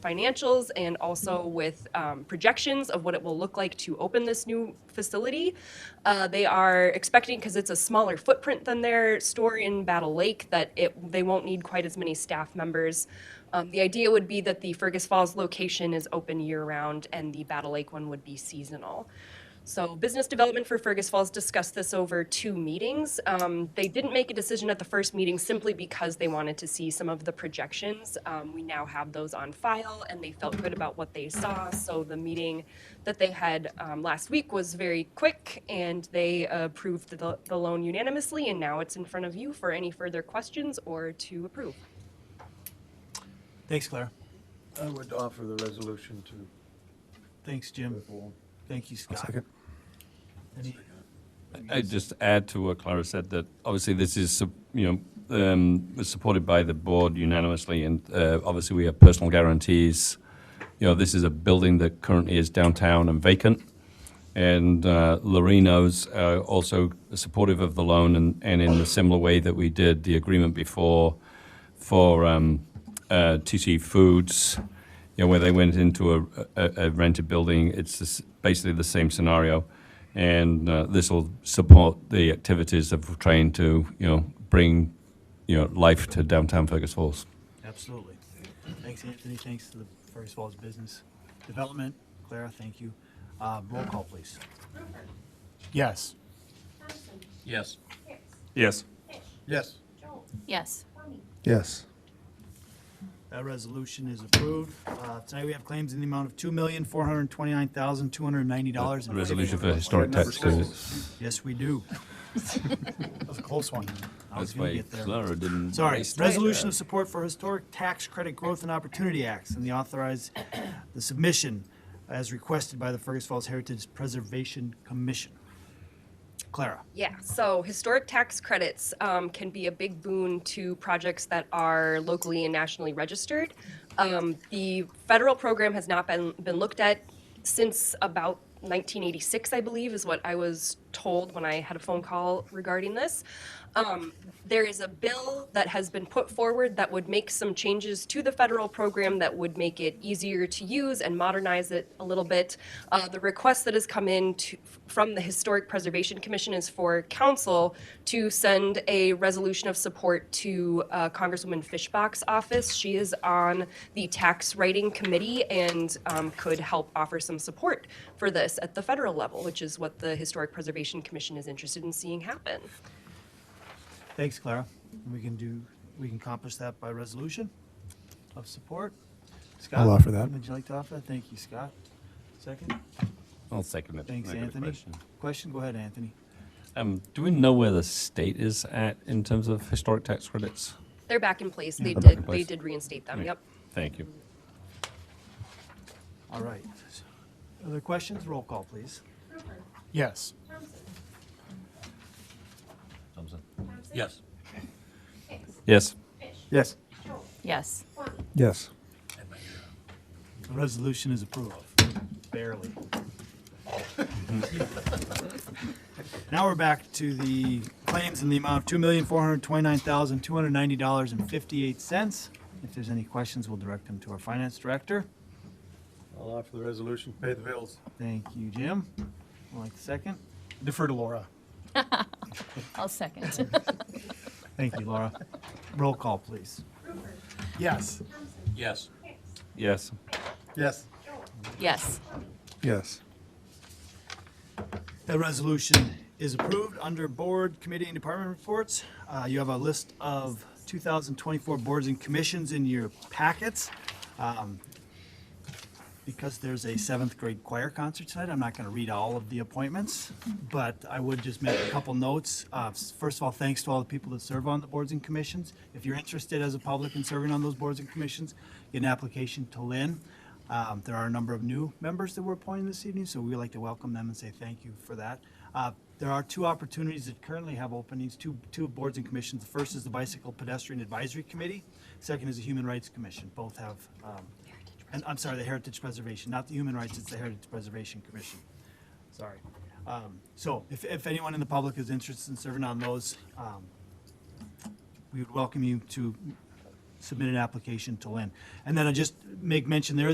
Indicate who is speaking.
Speaker 1: financials and also with um, projections of what it will look like to open this new facility. Uh, They are expecting, because it's a smaller footprint than their store in Battle Lake, that it, they won't need quite as many staff members. Um, The idea would be that the Fergus Falls location is open year-round and the Battle Lake one would be seasonal. So business development for Fergus Falls discussed this over two meetings. Um, they didn't make a decision at the first meeting simply because they wanted to see some of the projections. Um, we now have those on file and they felt good about what they saw. So the meeting that they had um, last week was very quick and they approved the, the loan unanimously. And now it's in front of you for any further questions or to approve.
Speaker 2: Thanks, Clara.
Speaker 3: I would offer the resolution to
Speaker 2: Thanks, Jim. Thank you, Scott. Any-
Speaker 4: I just add to what Clara said, that obviously this is, sup- you know, um, was supported by the board unanimously, and uh, obviously we have personal guarantees. You know, this is a building that currently is downtown and vacant, and uh, Lorino's uh, also supportive of the loan, and and in the similar way that we did the agreement before for um, uh, TC Foods, you know, where they went into a, a, a rented building. It's the s basically the same scenario, and uh, this will support the activities of trying to, you know, bring, you know, life to downtown Fergus Falls.
Speaker 2: Absolutely. Thanks, Anthony. Thanks to the Fergus Falls Business Development. Clara, thank you. Uh, Roll call, please.
Speaker 5: Rupert.
Speaker 6: Yes.
Speaker 5: Thompson.
Speaker 4: Yes.
Speaker 5: Hicks.
Speaker 4: Yes.
Speaker 5: Fish.
Speaker 3: Yes.
Speaker 5: Jones.
Speaker 7: Yes.
Speaker 5: Tony.
Speaker 6: Yes.
Speaker 2: That resolution is approved. Uh, Tonight, we have claims in the amount of $2,429,290. and
Speaker 4: Resolution for historic tax credits.
Speaker 2: Yes, we do. That was a close one. I was
Speaker 4: That's
Speaker 2: gonna
Speaker 4: why
Speaker 2: get there.
Speaker 4: Clara didn't.
Speaker 2: Sorry,
Speaker 4: raise that.
Speaker 2: resolution of support for historic tax credit growth and opportunity acts and the authorize the submission as requested by the Fergus Falls Heritage Preservation Commission. Clara,
Speaker 1: Yeah, so historic tax credits um, can be a big boon to projects that are locally and nationally registered. Um, The federal program has not been, been looked at since about 1986, I believe, is what I was told when I had a phone call regarding this. Um, There is a bill that has been put forward that would make some changes to the federal program that would make it easier to use and modernize it a little bit. Uh, The request that has come in to- from the Historic Preservation Commission is for council to send a resolution of support to uh, Congresswoman Fishbach's office. She is on the Tax Writing Committee and um, could help offer some support for this at the federal level, which is what the Historic Preservation Commission is interested in seeing happen.
Speaker 2: thanks, Clara. We can do, we can accomplish that by resolution of support. Scott,
Speaker 6: offer that.
Speaker 2: Would you like to offer? that? Thank you, Scott. Second?
Speaker 4: I'll second it.
Speaker 2: Thanks,
Speaker 4: I got a
Speaker 2: Anthony.
Speaker 4: question.
Speaker 2: Question? Go ahead, Anthony.
Speaker 4: Um, do we know where the state is at in terms of historic tax credits?
Speaker 1: They're back in place. They
Speaker 4: They're back
Speaker 1: did,
Speaker 4: in
Speaker 1: they
Speaker 4: place.
Speaker 1: did reinstate them,
Speaker 4: Yeah.
Speaker 1: yep.
Speaker 4: Thank you.
Speaker 2: All right. Other questions? Roll call, please.
Speaker 5: Rupert.
Speaker 6: Yes.
Speaker 5: Thompson.
Speaker 4: Thompson.
Speaker 5: Thompson. Hicks.
Speaker 4: Yes.
Speaker 5: Fish.
Speaker 6: Yes.
Speaker 5: Jones.
Speaker 7: Yes.
Speaker 5: Tony.
Speaker 6: Yes.
Speaker 2: The resolution is approved, barely. Now we're back to the claims in the amount of $2,429,290.58. If there's any questions, we'll direct them to our finance director.
Speaker 3: I'll offer the resolution, pay the bills.
Speaker 2: Thank you, Jim. Would like a second?
Speaker 6: Defer to Laura.
Speaker 7: I'll second.
Speaker 2: Thank you, Laura. Roll call, please.
Speaker 5: Rupert.
Speaker 6: Yes.
Speaker 5: Thompson.
Speaker 4: Yes.
Speaker 5: Hicks.
Speaker 4: Yes.
Speaker 3: Yes.
Speaker 5: Jones.
Speaker 7: Yes.
Speaker 6: Yes.
Speaker 2: That resolution is approved under board, committee, and department reports. Uh, You have a list of 2024 boards and commissions in your packets. Um, Because there's a seventh grade choir concert tonight, I'm not going to read all of the appointments, but I would just make a couple notes. Uh, s- First of all, thanks to all the people that serve on the boards and commissions. If you're interested as a public in serving on those boards and commissions, get an application to Lynn. Um, There are a number of new members that were appointed this evening, so we'd like to welcome them and say thank you for that. Uh, There are two opportunities that currently have openings, two, two boards and commissions. The first is the Bicycle Pedestrian Advisory Committee. Second is the Human Rights Commission. Both have, um, and I'm sorry, the Heritage Preservation, not the Human Rights, it's the Heritage Preservation Commission. Sorry. Um, So if, if anyone in the public is interested in serving on those, um, we would welcome you to submit an application to Lynn. And then I just make mention, there is.